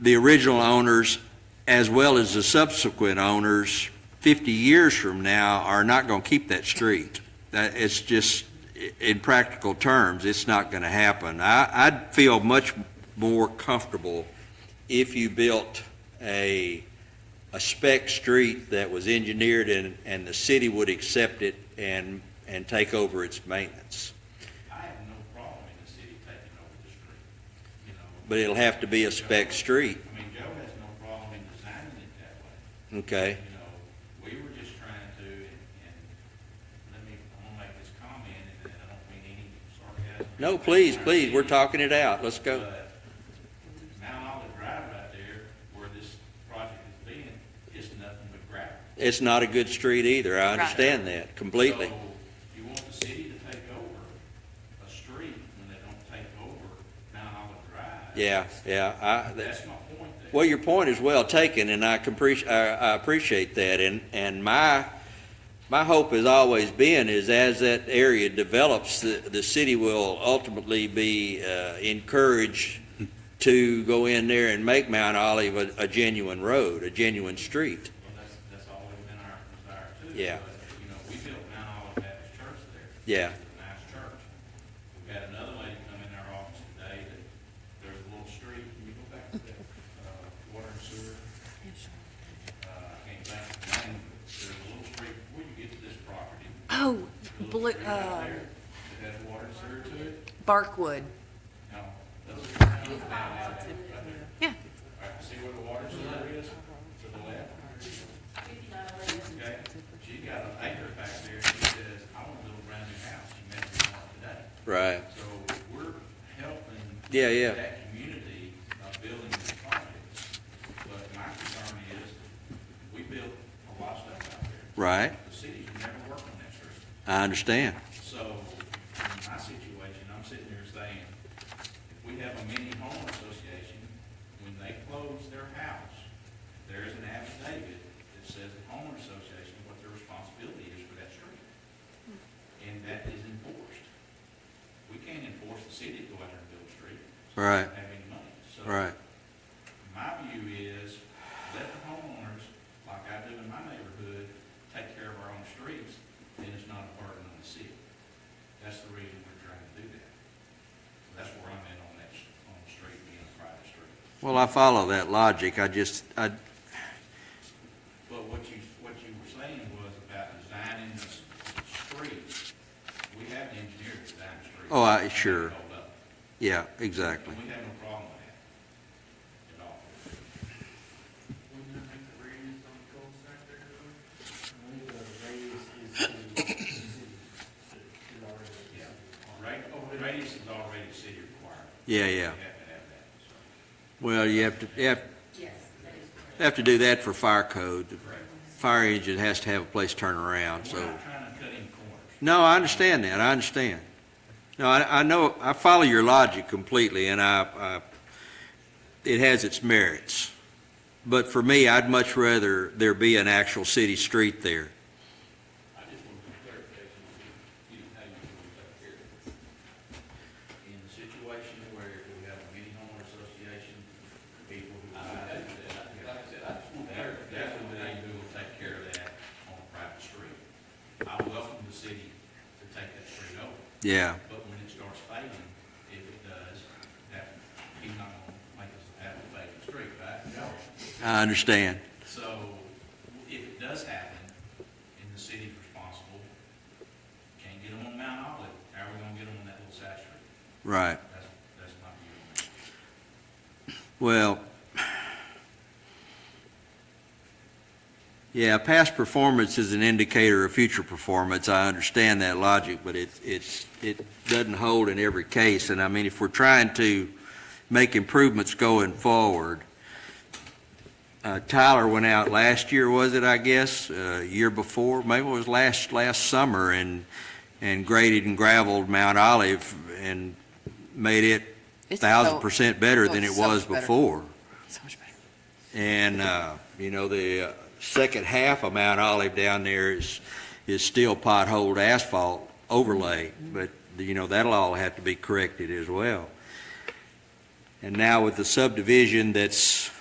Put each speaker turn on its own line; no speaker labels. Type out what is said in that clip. the original owners as well as the subsequent owners 50 years from now are not going to keep that street. That, it's just, i- in practical terms, it's not going to happen. I, I'd feel much more comfortable if you built a, a spec street that was engineered and, and the city would accept it and, and take over its maintenance.
I have no problem in the city taking over the street, you know.
But it'll have to be a spec street,
I mean, Joe has no problem in designing it that way,
okay?
you know. We were just trying to, and, and let me, I'm gonna make this comment, and I don't mean any sarcasm.
No, please, please, we're talking it out, let's go.
But Mount Olive Drive right there, where this project is being, is nothing but gravel.
It's not a good street either, I understand that completely.
So you want the city to take over a street when they don't take over Mount Olive Drive?
Yeah, yeah, I, that-
That's my point there.
Well, your point is well taken, and I can appreci- I, I appreciate that, and, and my, my hope has always been is as that area develops, the, the city will ultimately be, uh, encouraged to go in there and make Mount Olive a, a genuine road, a genuine street.
Well, that's, that's always been our desire too.
Yeah.
But, You know, we built Mount Olive Baptist Church there.
Yeah.
It's a nice church. We've got another lady come in our office today that there's a little street, can you go back to that, uh, water and sewer? Uh, I can't think of the name, but there's a little street before you get to this property. there's a
Oh,
little
blue,
street out
uh,
there That has water and sewer to it.
Barkwood.
No, those are down, down, out there, right there.
Yeah.
All right, see where the water and sewer is to the left? Okay, she got an acre back there, and she says, I want to build a brand new house, she met me one today.
Right.
So we're helping.
Yeah, yeah.
That community by building these projects, but my concern is, we built a lot of stuff out there.
Right,
The cities never work on that sort of stuff.
I understand.
So, in my situation, I'm sitting here saying, if we have a mini home association, when they close their house, there is an affidavit that says the homeowner association, what their responsibility is for that street. And that is enforced. We can't enforce the city to go out there and build a street. so we
Right.
don't Have any money. So,
Right,
my view is, let the homeowners, like I do in my neighborhood, take care of our own streets, then it's not a burden on the city. That's the reason we're trying to do that. So That's where I'm at on that, s- on the street being a private street.
well, I follow that logic, I just, I,
But what you, what you were saying was about designing the s- streets. We have an engineer to design the streets.
Oh, I-
They
sure.
hold up.
yeah, exactly.
And we have no problem with that at all.
Wouldn't that make the radius on the cul-de-sac there go? I believe the radius is to the city. It already is.
Yeah. Right, oh, radius is already city required.
Yeah,
We
yeah.
have to have that, so.
Well, you have to, you have, you have to do that for fire code. The Fire engine has to have a place to turn around,
We're
so.
not trying to cut any corners.
No, I understand that, I understand. No, I, I know, I follow your logic completely, and I, I, it has its merits. But for me, I'd much rather there be an actual city street there.
I just want some clarification, you know, how you want to take care of it. In the situation where we have a mini homeowner association, people who. I, like I said, I just want clarification. That's the way we will take care of that on a private street. I welcome the city to take that street over,
Yeah,
but when it starts fading, if it does, that, he's not gonna make us have a fading street, right? No.
I understand.
So if it does happen, and the city's responsible, can't get them on Mount Olive, how are we gonna get them on that little side street?
Right.
That's, that's my view on it.
Well, yeah, past performance is an indicator of future performance. I understand that logic, but it, it's, it doesn't hold in every case. And I mean, if we're trying to make improvements going forward, uh, Tyler went out last year, was it, I guess, uh, year before? Maybe it was last, last summer and, and graded and gravelled Mount Olive and made it
It's
thousand
so-
percent better
oh,
than it
so much
was
better.
before.
So much better.
And, uh, you know, the uh, second half of Mount Olive down there is, is still potholed asphalt overlay,
Mm-hmm.
but, you know, that'll all have to be corrected as well. And now with the subdivision that's